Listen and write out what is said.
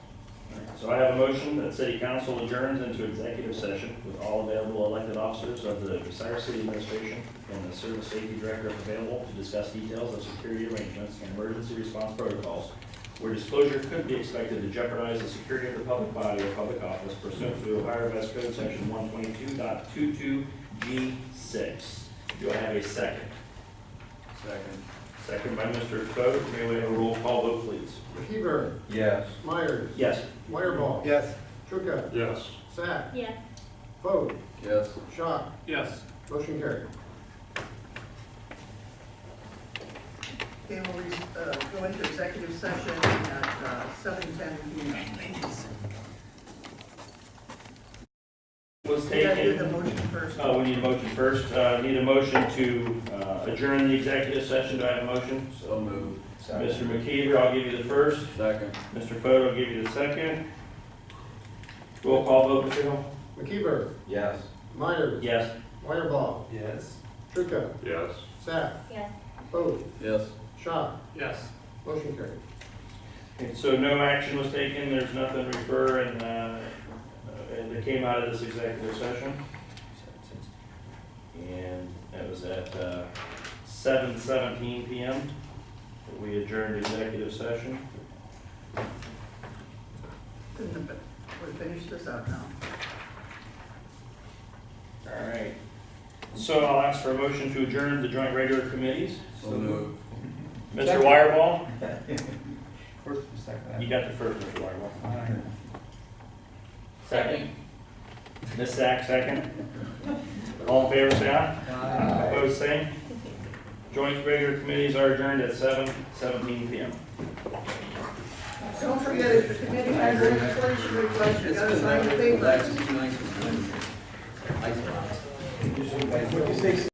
So I have a motion that city council adjourns into executive session with all available elected officers of the Bucyrus City Administration and the Service Safety Director if available to discuss details of security arrangements and emergency response protocols where disclosure could be expected to jeopardize the security of the public body or public office pursuant to Ohio Revised Code Section 122.22G6. Do I have a second? Second. Second by Mr. Foe. May we have a roll call vote, please? Heber, Yes. Myers, Yes. Wireball, Yes. Trucca, Yes. Sack, Yes. Foote, Yes. Schott, Yes. motion carried. Okay, we'll uh, go into executive session at uh, seven ten P M. Was We gotta do taken. the motion first. Uh, we need a motion first. Uh, need a motion to, uh, adjourn the executive session. Do I have a motion? So moved. Mr. McKeever, I'll give you the first. Second. Mr. Foto, I'll give you the second. Roll call vote, Mr. Hill? McKeever, Yes. Myers, Yes. Wireball, Yes. Trucca, Yes. Sack, Yes. Foote, Yes. Schott, Yes. motion carried. And so no action was taken. There's nothing to refer and, uh, and that came out of this executive session. And that was at, uh, seven seventeen PM. We adjourned executive session. Couldn't have- We'll finish this up now. All right. So I'll ask for a motion to adjourn the joint regular committees. So moved. Mr. Wireball, First and second. you got the first, Mr. Wireball. Aye. Second. Ms. Sack, second. All in favor, say aye. Opposed, same. Joint regular committees are adjourned at seven seventeen PM. Don't forget, if the committee has any legislation request, you gotta sign the paper. Nice, nice. Nice. What you say,